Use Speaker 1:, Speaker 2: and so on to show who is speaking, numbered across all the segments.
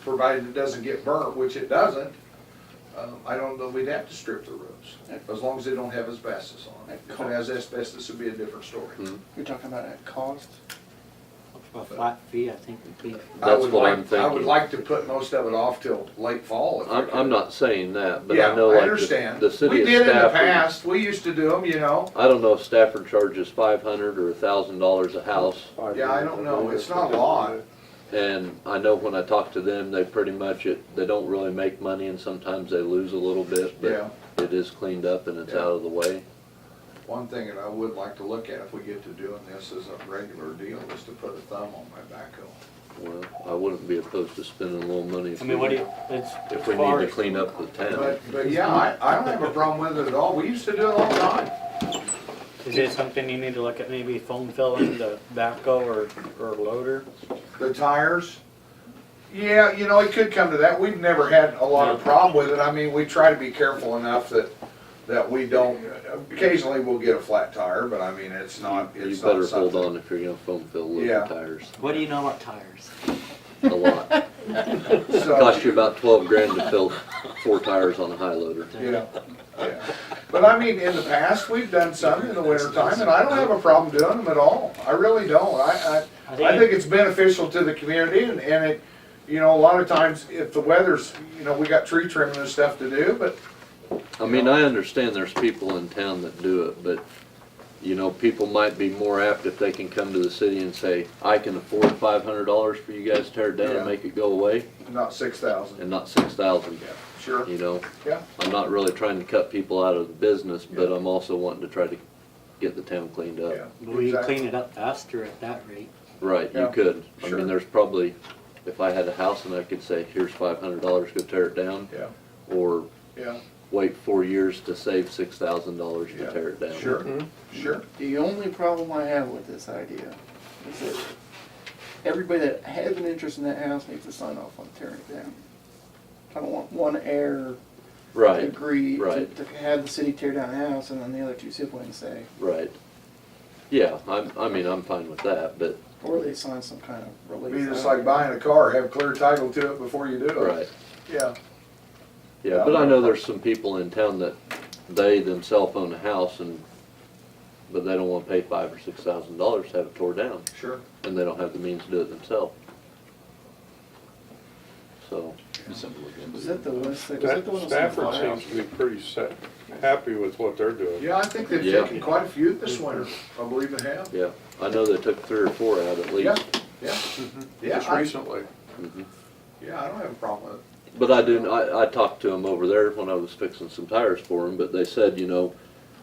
Speaker 1: provided it doesn't get burnt, which it doesn't, um, I don't know, we'd have to strip the roofs, as long as they don't have asbestos on it. If it has asbestos, it'd be a different story.
Speaker 2: Hmm.
Speaker 3: You're talking about at cost?
Speaker 4: A flat fee, I think would be,
Speaker 1: I
Speaker 2: That's
Speaker 1: would
Speaker 2: what I'm
Speaker 1: like- I would
Speaker 2: thinking.
Speaker 1: like to put most of it off till late fall. if I
Speaker 2: I'm,
Speaker 1: could.
Speaker 2: I'm not saying that, but
Speaker 1: Yeah,
Speaker 2: I know
Speaker 1: I
Speaker 2: like
Speaker 1: understand.
Speaker 2: the, the city
Speaker 1: We
Speaker 2: of
Speaker 1: did in the
Speaker 2: Stafford.
Speaker 1: past, we used to do them, you know,
Speaker 2: I don't know if Stafford charges five hundred or a thousand dollars a house.
Speaker 1: yeah, I don't know, it's not a lot.
Speaker 2: And I know when I talk to them, they pretty much, it, they don't really make money and sometimes they lose a little bit,
Speaker 1: Yeah.
Speaker 2: but it is cleaned up and it's
Speaker 1: Yeah.
Speaker 2: out of the way.
Speaker 1: One thing that I would like to look at if we get to doing this as a regular deal is to put a thumb on my backhoe.
Speaker 2: Well, I wouldn't be opposed to spending a little money. if
Speaker 4: I mean, what do
Speaker 2: we-
Speaker 4: you, it's.
Speaker 2: If we
Speaker 4: as
Speaker 2: need
Speaker 4: far
Speaker 2: to
Speaker 4: as-
Speaker 2: clean up the town.
Speaker 1: But, but yeah, I, I don't have a problem with it at all, we used to do it all the time.
Speaker 4: Is it something you need to look at, maybe foam filling the backhoe or, or loader?
Speaker 1: The tires, yeah, you know, it could come to that, we've never had a lot of problem with it, I mean, we try to be careful enough that, that we don't, occasionally we'll get a flat tire, but I mean, it's not,
Speaker 2: You
Speaker 1: it's not
Speaker 2: better hold
Speaker 1: something.
Speaker 2: on if you're gonna foam fill
Speaker 1: Yeah.
Speaker 2: little tires,
Speaker 4: What do you know about tires?
Speaker 2: a lot.
Speaker 1: So,
Speaker 2: Cost you about twelve grand to fill four tires on a high loader.
Speaker 1: yeah, yeah. But I mean, in the past, we've done some in the wintertime, and I don't have a problem doing them at all, I really don't, I, I, I think it's beneficial to the community and, and it, you know, a lot of times if the weather's, you know, we got tree trimming and stuff to do, but
Speaker 2: I mean, I understand there's people in town that do it, but, you know, people might be more apt if they can come to the city and say, I can afford five hundred dollars for you guys to tear it down
Speaker 1: Yeah.
Speaker 2: and make it go away,
Speaker 1: not six thousand.
Speaker 2: and not six thousand,
Speaker 1: Yeah, sure,
Speaker 2: you know?
Speaker 1: yeah,
Speaker 2: I'm not really trying to cut people out of the business, but
Speaker 1: Yeah.
Speaker 2: I'm also wanting to try to get the town cleaned
Speaker 1: yeah.
Speaker 2: up.
Speaker 4: We can
Speaker 1: exactly.
Speaker 4: clean it up faster at that rate.
Speaker 2: Right, you
Speaker 1: Yeah.
Speaker 2: could. I
Speaker 1: Sure.
Speaker 2: mean, there's probably, if I had a house and I could say, here's five hundred dollars, go tear it down,
Speaker 1: Yeah,
Speaker 2: or
Speaker 1: yeah,
Speaker 2: wait four years to save six thousand dollars
Speaker 1: Yeah.
Speaker 2: to tear it down.
Speaker 1: sure,
Speaker 2: Mm-hmm.
Speaker 1: sure.
Speaker 3: The only problem I have with this idea is that everybody that has an interest in that house needs to sign off on tearing it down. I don't want one heir to
Speaker 2: Right,
Speaker 3: agree to,
Speaker 2: right.
Speaker 3: to have the city tear down a house and then the other two siblings say,
Speaker 2: right. Yeah, I'm, I mean, I'm fine with that, but,
Speaker 3: or they sign some kind of release.
Speaker 1: Be just like buying a car, have clear title to it before you do it.
Speaker 2: right.
Speaker 1: Yeah,
Speaker 2: Yeah, but I know there's some people in town that they themselves own a house and, but they don't wanna pay five or six thousand dollars to have it tore down.
Speaker 1: sure.
Speaker 2: and they don't have the means to do it themselves. So,
Speaker 3: Was that the list, that- was that the one?
Speaker 5: That-
Speaker 3: that was
Speaker 5: Stafford
Speaker 3: on the
Speaker 5: seems to be pretty set, happy with what they're doing.
Speaker 1: Yeah, I think they've
Speaker 2: Yeah. Mm-hmm.
Speaker 1: taken quite a few this winter, I believe they have.
Speaker 2: yeah, I know they took three or four out at
Speaker 1: Yeah,
Speaker 2: least.
Speaker 1: yeah, yeah,
Speaker 5: Mm-hmm. Just
Speaker 1: I,
Speaker 5: recently,
Speaker 2: Mhm.
Speaker 1: yeah, I don't have a problem with it.
Speaker 2: But I do, I, I talked to them over there when I was fixing some tires for them, but they said, you know,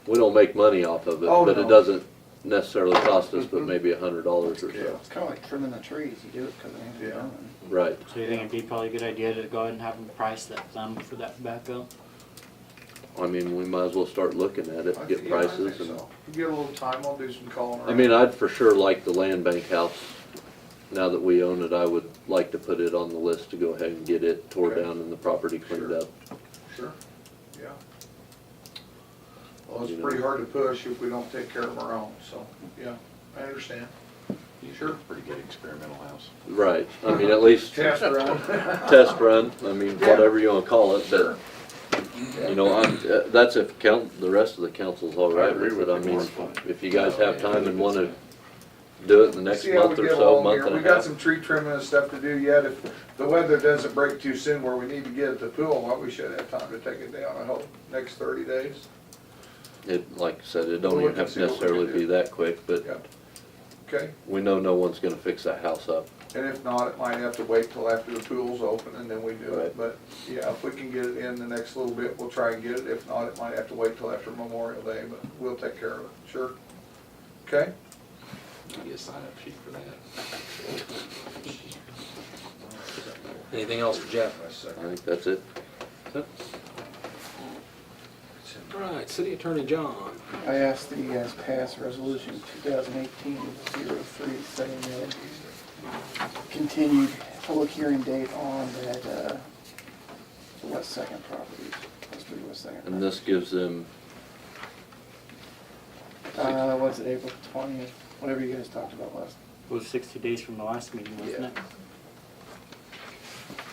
Speaker 2: we don't make money off of it,
Speaker 1: Oh,
Speaker 2: but
Speaker 1: no. Mm-hmm.
Speaker 2: it doesn't necessarily cost us, but maybe a hundred dollars or
Speaker 1: Yeah.
Speaker 2: so.
Speaker 3: It's kinda like trimming the trees, you do it because it ain't
Speaker 1: Yeah.
Speaker 3: done.
Speaker 2: Right,
Speaker 4: So you think it'd be probably a good idea to go ahead and have them price that thumb for that backhoe?
Speaker 2: I mean, we might as well start looking at
Speaker 1: I
Speaker 2: it, get
Speaker 1: think- yeah, I
Speaker 2: prices
Speaker 1: think
Speaker 2: and,
Speaker 1: so. Give it a little time, I'll do some calling around.
Speaker 2: I mean, I'd for sure like the land bank house. Now that we own it, I would like to put it on the list to go ahead and get it tore
Speaker 1: Okay.
Speaker 2: down and the property cleaned
Speaker 1: Sure.
Speaker 2: up.
Speaker 1: Sure, yeah. Well,
Speaker 2: You
Speaker 1: it's
Speaker 2: know.
Speaker 1: pretty hard to push if we don't take care of our own, so, yeah, I understand. Sure.
Speaker 6: Pretty good experimental house.
Speaker 2: Right, I mean, at least
Speaker 1: Test run.
Speaker 2: test run, I mean,
Speaker 1: Yeah.
Speaker 2: whatever you wanna call it,
Speaker 1: Sure.
Speaker 2: but, you know, I'm, uh, that's if count, the rest of the council's all
Speaker 5: I
Speaker 2: right
Speaker 5: agree
Speaker 2: with it,
Speaker 5: with
Speaker 2: I
Speaker 5: you.
Speaker 2: mean, if you guys have time and wanna
Speaker 6: Good
Speaker 2: do it in the next
Speaker 1: See how we
Speaker 2: month or
Speaker 1: get
Speaker 2: so,
Speaker 1: along
Speaker 2: month
Speaker 1: here.
Speaker 2: and
Speaker 1: We
Speaker 2: a
Speaker 1: got
Speaker 2: half.
Speaker 1: some tree trimming and stuff to do yet, if the weather doesn't break too soon where we need to get at the pool, well, we should have time to take it down, I hope, next thirty days.
Speaker 2: It, like I said, it
Speaker 1: We'll
Speaker 2: don't
Speaker 1: look
Speaker 2: even
Speaker 1: and
Speaker 2: have
Speaker 1: see
Speaker 2: to
Speaker 1: what we can
Speaker 2: necessarily
Speaker 1: do.
Speaker 2: be that quick, but
Speaker 1: Yeah. Okay,
Speaker 2: we know no one's gonna fix that house up.
Speaker 1: and if not, it might have to wait till after the pool's open and then we do it,
Speaker 2: Right.
Speaker 1: but, yeah, if we can get it in the next little bit, we'll try and get it, if not, it might have to wait till after Memorial Day, but we'll take care of it, sure? Okay?
Speaker 6: You get a sign up sheet for that.
Speaker 7: Anything else for Jeff?
Speaker 2: I think that's it.
Speaker 7: All right, City Attorney John.
Speaker 3: I asked that you guys pass resolution 2018-03 saying that continued public hearing date on that, uh, the West Second property, West Three West Second.
Speaker 2: And this gives them,
Speaker 3: Uh, what's it, April twentieth, whatever you guys talked about last,
Speaker 4: It was sixty days from the last meeting, wasn't it?